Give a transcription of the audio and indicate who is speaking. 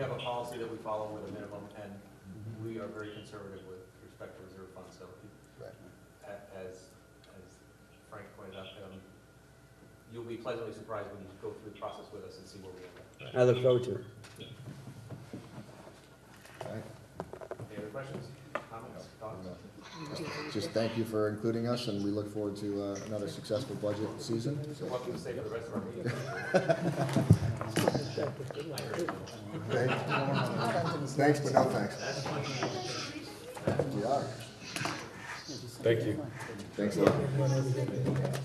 Speaker 1: policy that we follow with a minimum, and we are very conservative with respect to reserve funds, so
Speaker 2: Right.
Speaker 1: a- as, as Frank pointed out, um, you'll be pleasantly surprised when you go through the process with us and see where we end up.
Speaker 3: I look forward to it.
Speaker 2: Right.
Speaker 1: Any other questions, comments, thoughts?
Speaker 2: Just thank you for including us, and we look forward to uh, another successful budget season.
Speaker 1: So what can we say for the rest of our meeting?
Speaker 2: Thanks, but no thanks. Yeah,
Speaker 4: Thank you.
Speaker 2: thanks a lot.